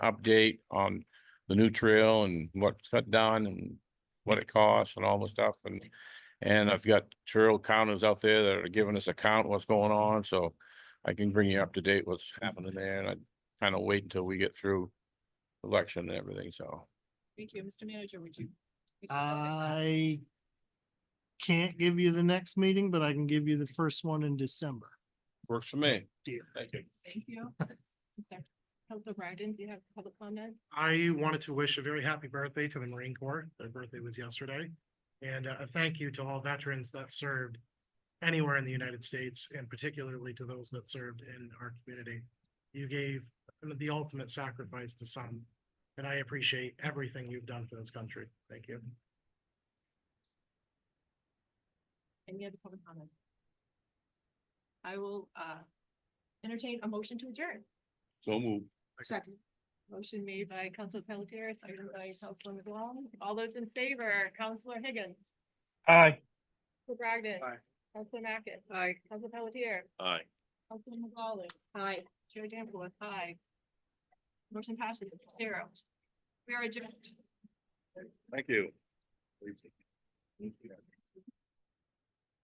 update on the new trail and what's got done and what it costs and all the stuff and and I've got trail counters out there that are giving us a count what's going on, so I can bring you up to date what's happening there and I kind of wait until we get through election and everything, so. Thank you, Mr. Manager, would you? would you go ahead? I can't give you the next meeting, but I can give you the first one in December. Works for me. Deal. Thank you. Thank you. Council Brandon, do you have public comment? I wanted to wish a very happy birthday to the Marine Corps. Their birthday was yesterday. And uh, a thank you to all veterans that served anywhere in the United States and particularly to those that served in our community. You gave the ultimate sacrifice to some, and I appreciate everything you've done for this country. Thank you. Any other public comment? I will uh entertain a motion to adjourn. So move. Second. Motion made by Council Pelletier, seconded by Council McGowan. All those in favor, Councilor Higgins, Aye. Council Bragdon. Aye. Council Mackin. Aye. Council Pelletier, Aye. Council McGowan. Aye. Chair Danforth, aye. Motion passes zero. We are adjourned. Thank you.